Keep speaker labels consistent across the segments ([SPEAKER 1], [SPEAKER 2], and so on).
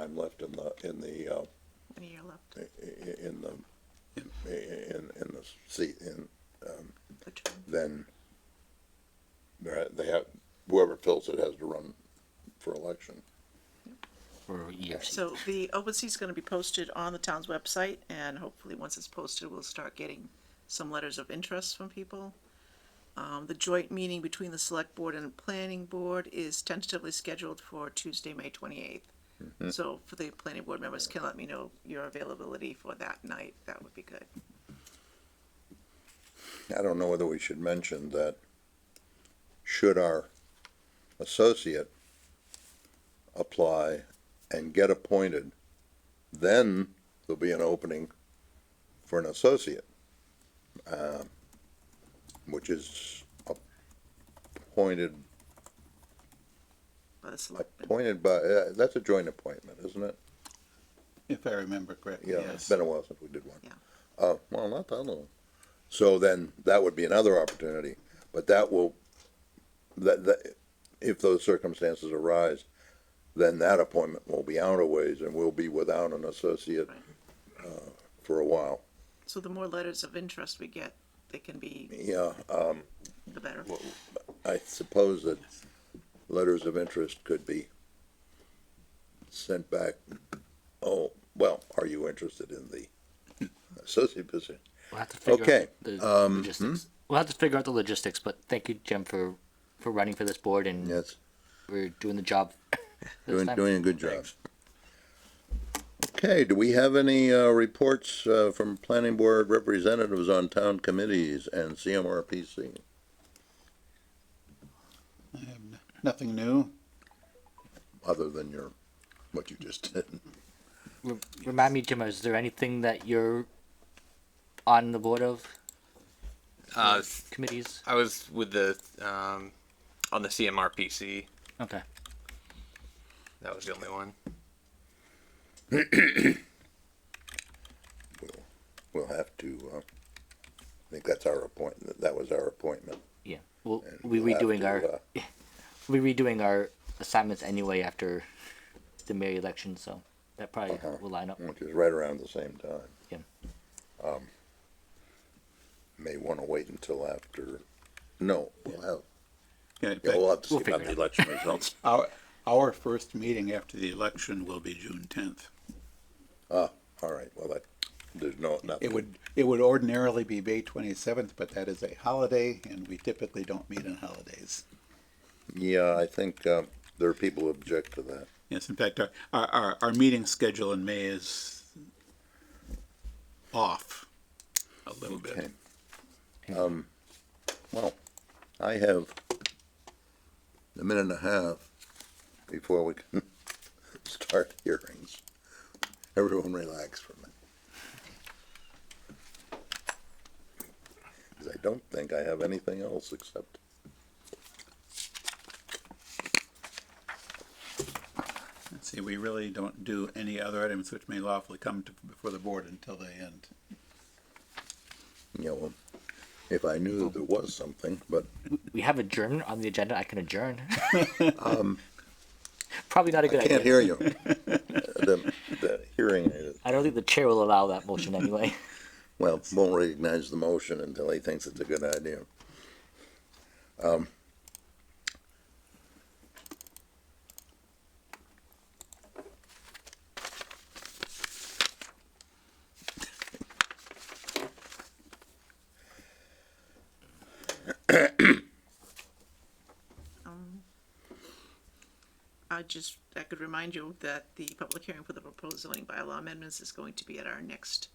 [SPEAKER 1] time left in the, in the, uh,
[SPEAKER 2] One year left,
[SPEAKER 1] i- i- in the, in, in the seat, in,
[SPEAKER 2] the term.
[SPEAKER 1] then they're- they have, whoever fills it has to run for election.
[SPEAKER 3] for years.
[SPEAKER 2] So the open seat's gonna be posted on the town's website, and hopefully, once it's posted, we'll start getting some letters of interest from people. Um, the joint meeting between the select board and planning board is tentatively scheduled for Tuesday, May twenty-eighth. So for the planning board members, can let me know your availability for that night, that would be good.
[SPEAKER 1] I don't know whether we should mention that should our associate apply and get appointed, then there'll be an opening for an associate, uh, which is appointed,
[SPEAKER 2] By the selectmen,
[SPEAKER 1] appointed by, uh, that's a joint appointment, isn't it?
[SPEAKER 4] If I remember correctly,
[SPEAKER 1] Yeah, it's
[SPEAKER 4] yes.
[SPEAKER 1] been a while since we did one.
[SPEAKER 2] Yeah.
[SPEAKER 1] Uh, well, not that long. So then that would be another opportunity, but that will, that, that, if those circumstances arise, then that appointment will be out of ways and we'll be without an associate, uh,
[SPEAKER 2] Right.
[SPEAKER 1] for a while.
[SPEAKER 2] so the more letters of interest we get, they can be,
[SPEAKER 1] Yeah, um,
[SPEAKER 2] the better.
[SPEAKER 1] I suppose that letters of interest could be sent back. Oh, well, are you interested in the associate position?
[SPEAKER 3] We'll have to figure
[SPEAKER 1] Okay, um, hmm?
[SPEAKER 3] out the logistics. We'll have to figure out the logistics, but thank you, Jim, for for running for this board and
[SPEAKER 1] Yes.
[SPEAKER 3] we're doing the job. this
[SPEAKER 1] Doing,
[SPEAKER 3] time.
[SPEAKER 1] doing a good job. Okay, do we have any, uh, reports, uh, from planning board representatives on town committees and CMRPC?
[SPEAKER 4] I have n- nothing new.
[SPEAKER 1] Other than your, what you just did.
[SPEAKER 3] Re- remind me, Jim, is there anything that you're on the board of
[SPEAKER 5] Uh,
[SPEAKER 3] committees?
[SPEAKER 5] I was with the um, on the CMRPC.
[SPEAKER 3] Okay.
[SPEAKER 5] That was the only one.
[SPEAKER 1] We'll, we'll have to, uh, I think that's our appointment, that was our appointment.
[SPEAKER 3] Yeah. Well,
[SPEAKER 1] and
[SPEAKER 3] we
[SPEAKER 1] we'll have
[SPEAKER 3] redoing
[SPEAKER 1] to,
[SPEAKER 3] our
[SPEAKER 1] uh,
[SPEAKER 3] we redoing our assignments anyway after the mayor election, so that probably
[SPEAKER 1] Uh-huh.
[SPEAKER 3] will line up.
[SPEAKER 1] Which is right around the same time.
[SPEAKER 3] Yeah.
[SPEAKER 1] Um, May wanna wait until after, no, we'll have,
[SPEAKER 4] Yeah, in
[SPEAKER 1] yeah,
[SPEAKER 4] fact,
[SPEAKER 1] we'll have to see
[SPEAKER 3] We'll
[SPEAKER 1] about
[SPEAKER 3] figure
[SPEAKER 1] the
[SPEAKER 3] it
[SPEAKER 1] election results.
[SPEAKER 4] Our, our first meeting after the election will be June tenth.
[SPEAKER 1] All right, well, that, there's no, nothing.
[SPEAKER 4] It would, it would ordinarily be May twenty-seventh, but that is a holiday and we typically don't meet on holidays.
[SPEAKER 1] Yeah, I think uh, there are people who object to that.
[SPEAKER 4] Yes, in fact, our, our, our, our meeting schedule in May is off a little
[SPEAKER 1] Okay.
[SPEAKER 4] bit.
[SPEAKER 1] Um, Well, I have a minute and a half before we can start hearings. Everyone relax for a minute. Because I don't think I have anything else except
[SPEAKER 4] Let's see, we really don't do any other items which may lawfully come to, before the board until they end.
[SPEAKER 1] you know, um, if I knew that there was something, but
[SPEAKER 3] We have adjourn on the agenda. I can adjourn. um, probably not a
[SPEAKER 1] I
[SPEAKER 3] good
[SPEAKER 1] can't
[SPEAKER 3] idea.
[SPEAKER 1] hear you. The, the hearing is.
[SPEAKER 3] I don't think the chair will allow that motion anyway.
[SPEAKER 1] Well, won't recognize the motion until he thinks it's a good idea. Um,
[SPEAKER 2] I just, I could remind you that the public hearing for the proposed zoning bylaw amendments is going to be at our next,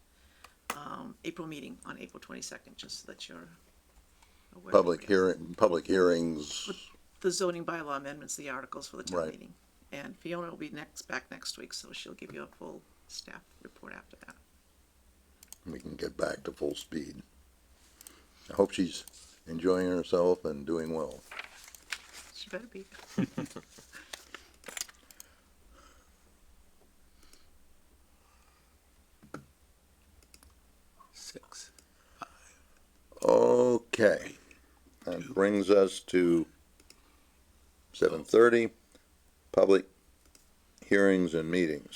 [SPEAKER 2] um, April meeting on April twenty-second, just so that you're aware.
[SPEAKER 1] public hearing, public hearings,
[SPEAKER 2] The zoning bylaw amendments, the articles for the town
[SPEAKER 1] Right.
[SPEAKER 2] meeting. And Fiona will be next, back next week, so she'll give you a full staff report after that.
[SPEAKER 1] we can get back to full speed. I hope she's enjoying herself and doing well.
[SPEAKER 2] She better be.
[SPEAKER 4] Six.
[SPEAKER 1] Okay, that brings us to seven thirty, public hearings and meetings.